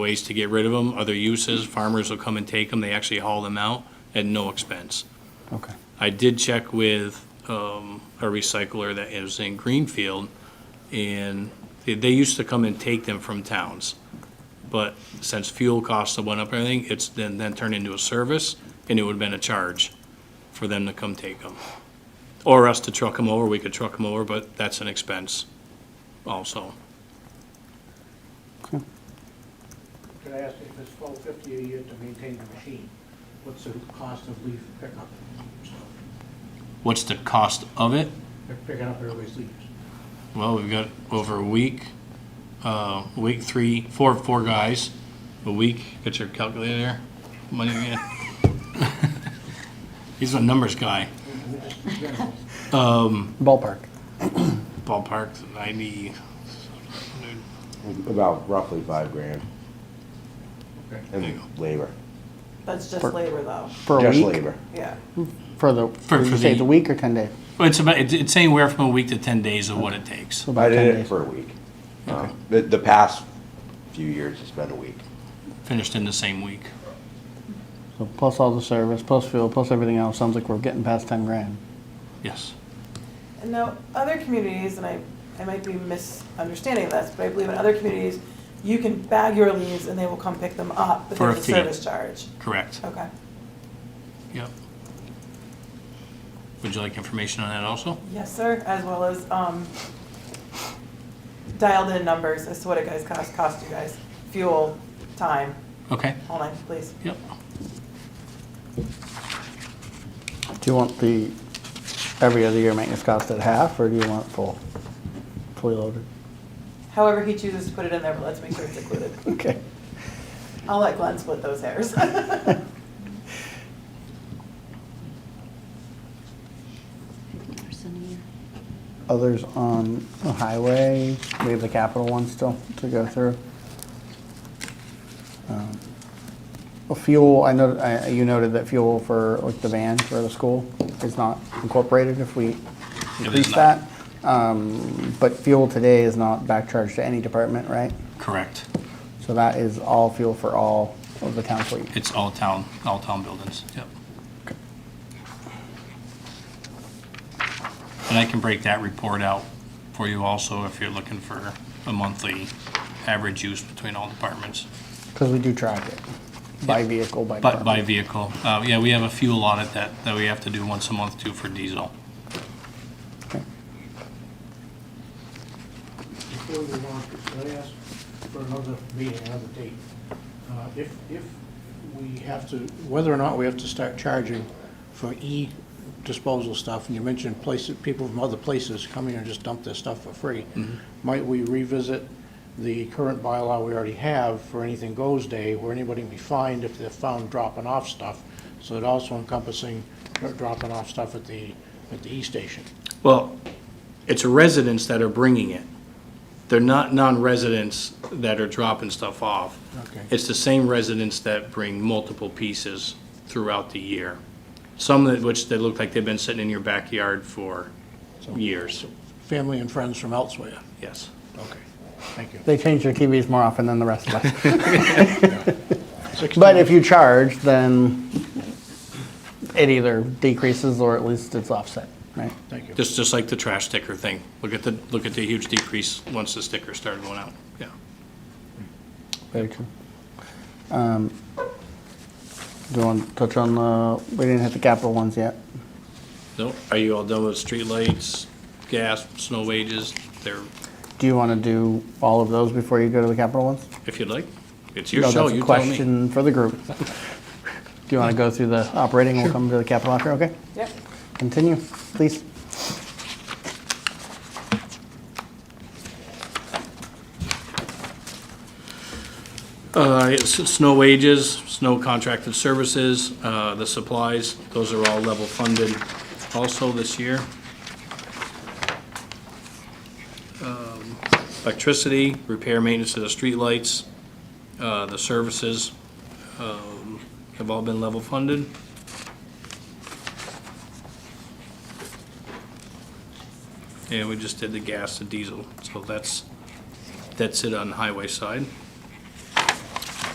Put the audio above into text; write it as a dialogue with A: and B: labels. A: ways to get rid of them, other uses, farmers will come and take them, they actually haul them out at no expense.
B: Okay.
A: I did check with um, a recycler that is in Greenfield, and they- they used to come and take them from towns. But since fuel costs have went up and everything, it's then, then turned into a service, and it would have been a charge for them to come take them. Or us to truck them over, we could truck them over, but that's an expense also.
C: Could I ask if it's twelve fifty a year to maintain the machine? What's the cost of leaf pickup? So,
A: What's the cost of it?
C: They're picking up everybody's leaves.
A: Well, we've got over a week, uh, week three, four, four guys, a week, get your calculator there, money man. He's a numbers guy,
C: We- we just- we don't know.
B: Ballpark.
A: ballpark ninety,
D: About roughly five grand
C: Okay.
D: in labor,
E: That's just
B: For-
E: labor though,
B: For a
D: just
B: week?
D: labor.
E: yeah.
B: For the,
A: For-
B: did you
A: for
B: say
A: the-
B: the week or 10 days?
A: well, it's about, it's- it's anywhere from a week to ten days of what it takes.
B: So
D: I
B: about 10
D: did it
B: days.
D: for a week. Um, The, the past few years, it's been a week.
A: Finished in the same week.
B: So plus all the service, plus fuel, plus everything else, sounds like we're getting past 10 grand.
A: Yes.
E: And now, other communities, and I, I might be misunderstanding this, but I believe in other communities, you can bag your leaves and they will come pick them up, but
A: For a
E: there's a
A: fee.
E: service charge.
A: Correct.
E: Okay.
A: Yep. Would you like information on that also?
E: Yes, sir, as well as, um, dialed in numbers as to what it guys cost, cost you guys, fuel, time,
A: Okay,
E: all night, please.
A: yep.
B: Do you want the every other year maintenance cost at half, or do you want it full? Fully loaded?
E: However he chooses to put it in there, but let's make sure it's included.
B: Okay.
E: I'll let Glenn split those hairs.
B: Others on the highway, we have the capital one still to go through. Um, well, Fuel, I know, I- you noted that fuel for, like, the van for the school is not incorporated if we increase
A: not.
B: that. Um, But fuel today is not back charged to any department, right?
A: Correct.
B: So that is all fuel for all of the town fleet.
A: It's all town, all town buildings, yep. And I can break that report out for you also if you're looking for a monthly average use between all departments,
B: Because we do track it by vehicle, by
A: but by
B: department.
A: vehicle. Uh, yeah, we have a fuel audit that, that we have to do once a month too for diesel.
C: Before we launch, could I ask for another meeting, another date? Uh, If, if we have to, whether or not we have to start charging for e-disposal stuff, and you mentioned places, people from other places come here and just dump their stuff for free, might we revisit the current bylaw we already have for Anything Goes Day, where anybody can be fined if they're found dropping off stuff, so it also encompassing dropping off stuff at the, at the E e-station?
A: Well, it's residents that are bringing it. They're not non-residents that are dropping stuff off.
C: Okay.
A: It's the same residents that bring multiple pieces throughout the year. Some that, which they look like they've been sitting in your backyard for years,
C: Family and friends from elsewhere.
A: yes.
C: Okay, thank you.
B: They change their TVs more often than the rest of us. But if you charge, then it either decreases or at least it's offset, right?
C: Thank you.
A: Just, just like the trash sticker thing. Look at the, look at the huge decrease once the stickers started going out, yeah.
B: Very true. Um, Do you want to touch on the, we didn't hit the capital ones yet.
A: No, are you all done with streetlights, gas, snow wages? They're,
B: Do you want to do all of those before you go to the capital ones?
A: if you'd like, it's your
B: No,
A: show,
B: that's a
A: you tell me.
B: Question for the group. Do you want to go through the operating? We'll come to the capital after, okay?
E: Yep.
B: Continue, please.
A: Uh, it's snow wages, snow contracted services, uh, the supplies, those are all level funded also this year. Um, Electricity, repair, maintenance of the streetlights, uh, the services, um, have all been level funded. And we just did the gas and diesel, so that's, that's it on the highway side.